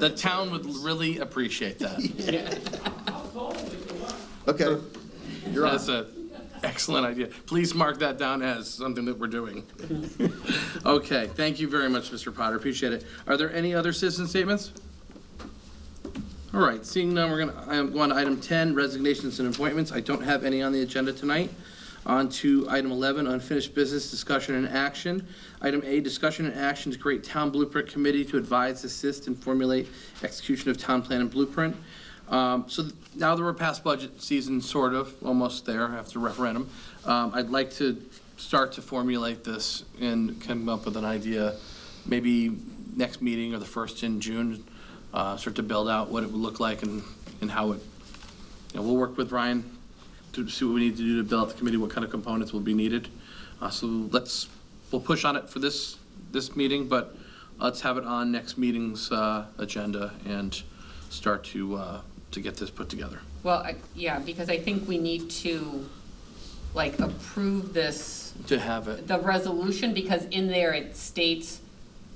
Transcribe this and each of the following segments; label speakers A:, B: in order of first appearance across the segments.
A: The town would really appreciate that.
B: Okay, you're on.
A: That's an excellent idea. Please mark that down as something that we're doing. Okay, thank you very much, Mr. Potter, appreciate it. Are there any other citizen statements? All right, seeing none, we're gonna, I'm going to item 10, resignations and appointments. I don't have any on the agenda tonight. On to item 11, unfinished business discussion and action. Item A, discussion and action to create town blueprint committee to advise, assist, and formulate execution of town plan and blueprint. Um, So th- now that we're past budget season, sort of, almost there after referendum, um, I'd like to start to formulate this and come up with an idea, maybe next meeting or the first in June, uh, start to build out what it would look like and, and how it, you know, we'll work with Ryan to see what we need to do to build out the committee, what kind of components will be needed. Uh, So let's, we'll push on it for this, this meeting, but let's have it on next meeting's uh, agenda and start to, uh, to get this put together.
C: Well, I- yeah, because I think we need to, like, approve this,
A: To have it,
C: the resolution, because in there it states,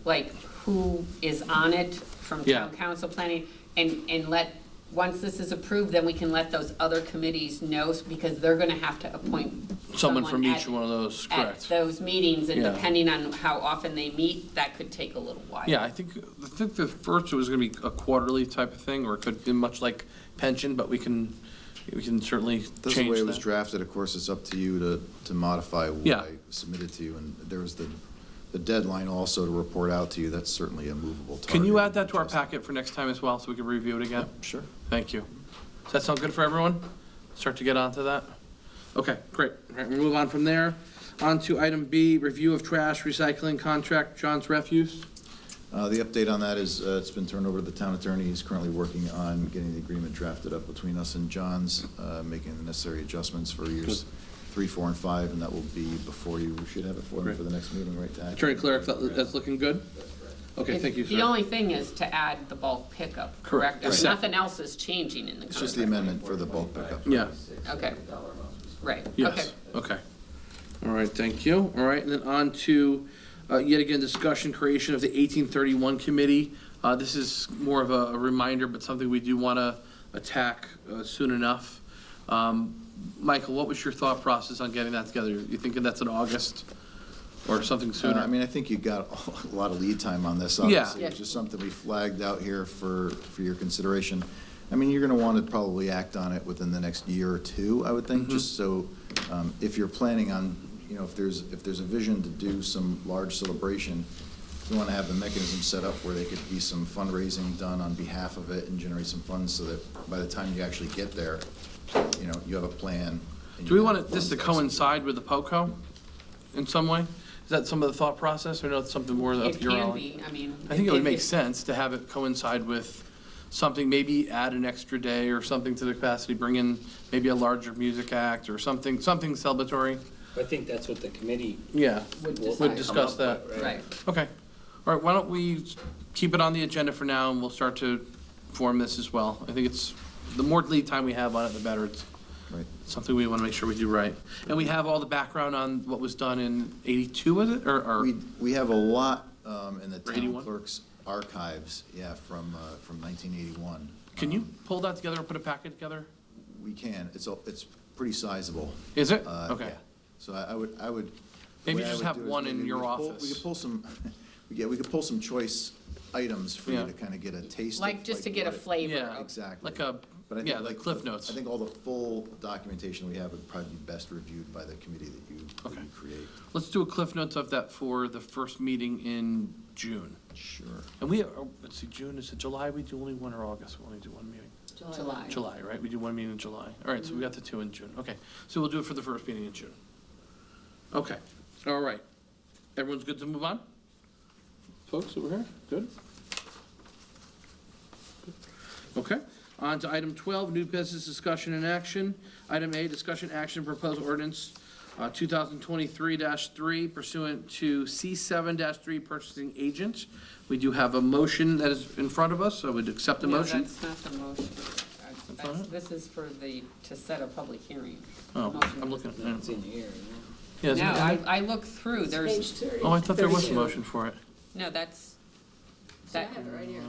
C: like, who is on it from town
A: Yeah.
C: council planning, and, and let, once this is approved, then we can let those other committees know, because they're gonna have to appoint
A: someone from each
C: at-
A: one of those,
C: At
A: correct?
C: those meetings, and
A: Yeah.
C: depending on how often they meet, that could take a little while.
A: Yeah, I think, I think the first was gonna be a quarterly type of thing, or it could be much like pension, but we can, we can certainly
B: That's the
A: change
B: way it was
A: that.
B: drafted, of course, it's up to you to, to modify what
A: Yeah.
B: I submitted to you, and there was the, the deadline also to report out to you, that's certainly a movable target.
A: Can you add that to our packet for next time as well, so we can review it again?
B: Sure.
A: Thank you. Does that sound good for everyone? Start to get onto that? Okay, great. All right, we'll move on from there. On to item B, review of trash recycling contract, John's Refuse.
B: Uh, the update on that is, uh, it's been turned over to the town attorney, he's currently working on getting the agreement drafted up between us and John's, uh, making the necessary adjustments for years three, four, and five, and that will be before you, we should have it for them for the next meeting, right, Tad?
A: Attorney Cleric, that- that's looking good? Okay,
C: If-
A: thank you,
C: The
A: sir.
C: only thing is to add the bulk pickup,
A: Correct.
C: correct? If
A: Right.
C: Nothing else is changing in the
B: It's just the
C: contract.
B: amendment for the bulk pickup.
A: Yeah,
C: Okay. Right, okay.
A: yes, okay. All right, thank you. All right, and then on to, uh, yet again, discussion creation of the 1831 Committee. Uh, This is more of a a reminder, but something we do want to attack uh, soon enough. Um, Michael, what was your thought process on getting that together? You thinking that's in August or something
B: Uh, I
A: sooner?
B: mean, I think you got a lot of lead time on this,
A: Yeah.
B: obviously,
C: Yeah.
B: which is something we flagged out here for, for your consideration. I mean, you're gonna want to probably act on it within the next year or two, I would think, just
A: Mm-hmm.
B: so, um, if you're planning on, you know, if there's, if there's a vision to do some large celebration, you want to have the mechanism set up where there could be some fundraising done on behalf of it and generate some funds so that by the time you actually get there, you know, you have a plan. and
A: Do we
B: you
A: want
B: have
A: it- this to
B: funds execute.
A: coincide with the POCO in some way? Is that some of the thought process or no, it's something more
C: It
A: up your alley?
C: can be, I mean.
A: I think it would make
C: if-
A: sense to have it coincide with something, maybe add an extra day or something to the capacity, bring in maybe a larger music act or something, something celebratory.
D: I think that's what the committee
A: Yeah,
C: Would
A: would
C: decide.
A: discuss that.
C: Right,
A: Okay. All right, why don't we keep it on the agenda for now and we'll start to form this as well. I think it's, the more lead time we have on it, the better. It's
B: Right.
A: something we want to make sure we do right. And we have all the background on what was done in 82, was it? Or, or,
B: We, we have a lot um, in the
A: Or
B: town
A: 81?
B: clerk's archives, yeah, from, uh, from 1981.
A: can you pull that together and put a packet together?
B: We can, it's, a- it's pretty sizable.
A: Is it?
B: uh,
A: Okay.
B: yeah. So I I would, I would. the
A: Maybe
B: way I
A: just
B: would
A: have
B: do it is
A: one in
B: maybe we
A: your
B: could pull- We
A: office.
B: could pull some, yeah, we could pull some choice items for
A: Yeah.
B: you to kind of get a taste of.
C: like, just to get a
B: what it-
C: flavor.
A: Yeah.
C: of-
B: Exactly.
A: Like a-
B: But I think
A: yeah, the
B: like
A: Cliff
B: the-
A: Notes.
B: I think all the full documentation we have would probably be best reviewed by the committee that you, that
A: Okay.
B: you create.
A: Let's do a cliff notes of that for the first meeting in June.
B: Sure.
A: And we, oh, let's see, June, is it July? We do only one or August? We only do one meeting?
C: July. Mm-hmm.
A: July, right? We do one meeting in July. All right, so we got the two in June. Okay, so we'll do it for the first meeting in June. Okay, all right. Everyone's good to move on? Folks over here, good? Okay, on to item 12, new business discussion and action. Item A, discussion action proposed ordinance uh, 2023-3 pursuant to C7-3 purchasing agent. We do have a motion that is in front of us, I would accept the
C: No,
A: motion.
C: That's not the motion. Uh,
A: That's not
C: that's-
A: it?
C: This is for the, to set a public hearing.
A: Oh,
C: Motion.
A: I'm looking at
D: that's in here.
A: Yeah,
C: No,
A: isn't
C: I,
A: it?
C: I looked through, there's,
A: Oh, I thought there was a motion for it.
C: no, that's,
E: That-
A: Uh, right here.